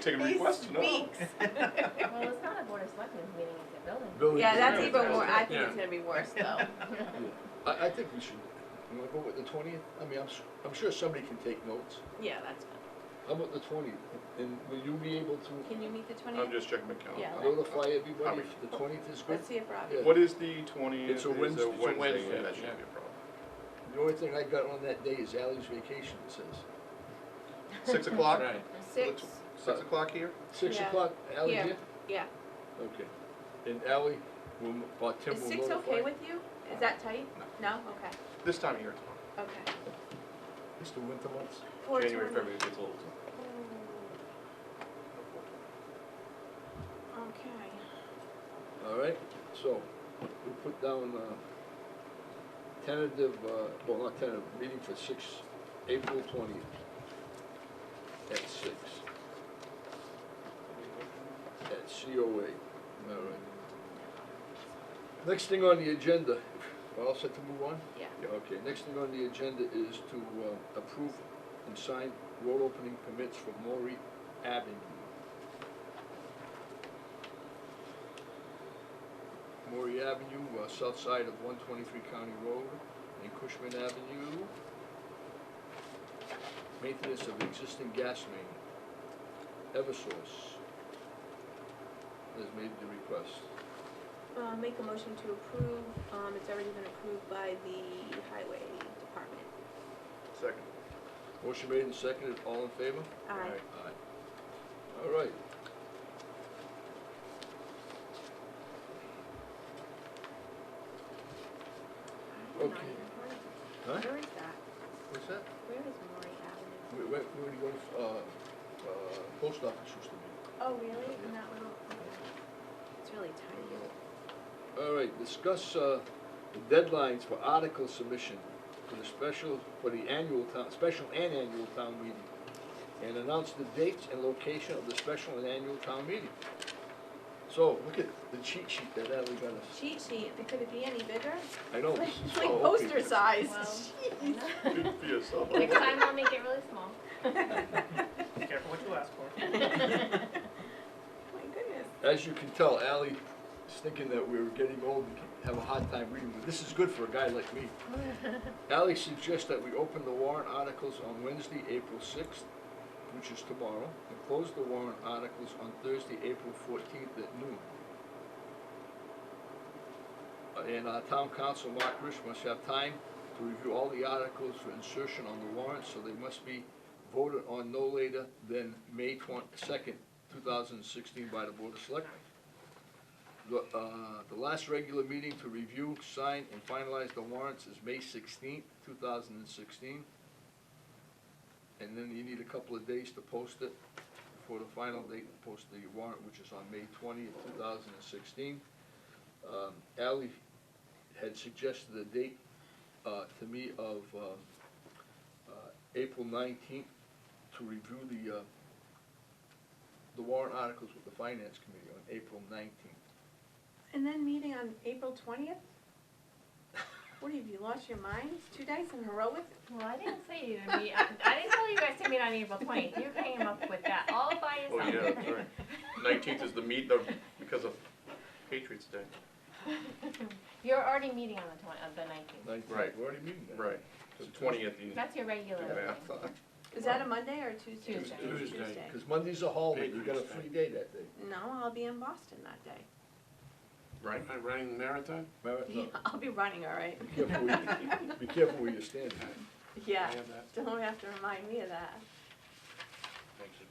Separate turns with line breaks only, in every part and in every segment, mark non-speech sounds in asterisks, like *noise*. take a request to know.
Well, it's not a board of selectmen's meeting, it's a building.
Building
Yeah, that's
commissioner.
even more, I think it's
Yeah.
gonna be worse though.
I, I think we should, you wanna go with the twentieth? I mean, I'm, su- I'm sure somebody can take notes.
Yeah, that's fine.
How about the twentieth? And will you be able to,
Can you meet the
I'm
twentieth?
just checking my calendar.
Yeah.
notify
How
everybody
many-
if the twentieth is good?
Let's see if Robbie.
Yeah.
What is the twentieth?
It's a Wednesday- it's a Wednesday,
That
yeah.
shouldn't be a problem.
The only thing I got on that day is Ally's vacation, it says.
Six o'clock?
Right.
Six,
Six o'clock here?
Six
Yeah.
o'clock, Ally
Yeah.
here?
yeah.
Okay. And Ally, will, or Tim
Is
will notify.
six okay with you? Is that tight? No, okay,
This time of year, it's fine.
okay.
It's the winter months.
Four
January,
twenty.
February, it gets old.
Okay.
All right, so we put down, uh, tentative, uh, well, not tentative, meeting for six, April twentieth at six. At COA, all right. Next thing on the agenda, *laughs* we're all set to move on?
Yeah.
Yeah, okay, next thing on the agenda is to, uh, approve and sign road opening permits for Maury Avenue. Maury Avenue, uh, south side of one twenty-three County Road, and Cushman Avenue. Maintenance of existing gas main. Eversource has made the request.
Uh, make a motion to approve, um, it's already been approved by the highway department.
Second.
Motion made and seconded, all in favor?
Aye.
Aye. All right.
I'm not
Okay.
even part of it.
Huh?
Where is that?
What's that?
Where is Maury Avenue?
We, we, we already go to, uh, uh, post office used to be.
Oh, really? In that little, okay. It's really tiny.
All right, discuss, uh, the deadlines for article submission for the special, for the annual town, special and annual town meeting. And announce the dates and location of the special and annual town meeting. So, look at the cheat sheet that Ally got us.
Cheat sheet, could it be any bigger?
I know, this is.
It's like
oh, okay.
poster size. Jeez.
*laughs*
Good for yourself.
Next *laughs* time I'll make it really small.
Be careful what you ask for.
My goodness.
As you can tell, Ally is thinking that we're getting old and have a hard time reading, but this is good for a guy like me. Ally suggests that we open the warrant articles on Wednesday, April sixth, which is tomorrow, and close the warrant articles on Thursday, April fourteenth at noon. Uh, And our town council, Mark Rich, must have time to review all the articles for insertion on the warrant, so they must be voted on no later than May twenty-second, two thousand and sixteen by the Board of Selectmen. The, uh, the last regular meeting to review, sign, and finalize the warrants is May sixteenth, two thousand and sixteen. And then you need a couple of days to post it for the final date to post the warrant, which is on May twentieth, two thousand and sixteen. Um, Ally had suggested a date, uh, to me of, uh, uh, April nineteenth to review the, uh, the warrant articles with the finance committee on April nineteenth.
And then meeting on April *laughs* twentieth? What have you lost your minds? Two days in a row with,
Well, I didn't say you to meet, I I didn't tell you guys to meet on April twentieth, you came up with that all by
Oh,
yourself. *laughs*
yeah, that's right. Nineteenth is the meet, the, because of Patriots Day.
You're already meeting on the twen, on the nineteenth,
Nineteenth,
Right.
we're already meeting that.
Right. The twentieth, you
that's your regular
do
meeting.
math.
is that a Monday or a Tuesday?
Tuesday.
Tuesday.
Because Monday's a holiday, you got a
Patriots
free day that day.
No, I'll be in Boston that *laughs* day.
Right?
Am I running the marathon?
Mar- no,
I'll be running, all right.
Be careful where you, be careful where you stand.
Yeah,
I have that.
don't have to remind me of that.
Thank you.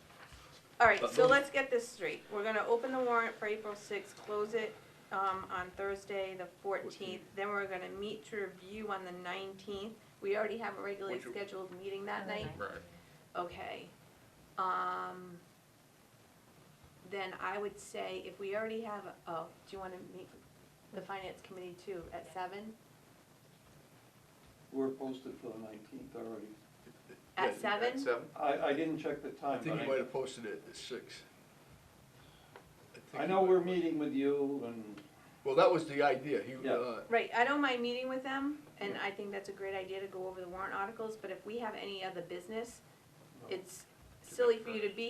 All right,
But
so
those-
let's get this straight. We're gonna open the warrant for April sixth, close it, um, on Thursday, the fourteenth. Then we're gonna meet to review on the nineteenth. We already have a regularly
Would you-
scheduled meeting that
On the
night.
Right.
Okay. Um, then I would say if we already have, a- oh, do you wanna meet the finance committee too at seven?
We're posted for the nineteenth already.
At
Yeah,
seven?
seven?
I, I didn't check the
I
time,
think you might
but
have posted it at six. think
I, I
you
know
might-
we're meeting with you and,
Well, that was the idea, he,
Yeah.
uh,
Right, I don't mind meeting with them, and I think that's a great idea to go over the warrant articles, but if we have any other business, it's silly for you to be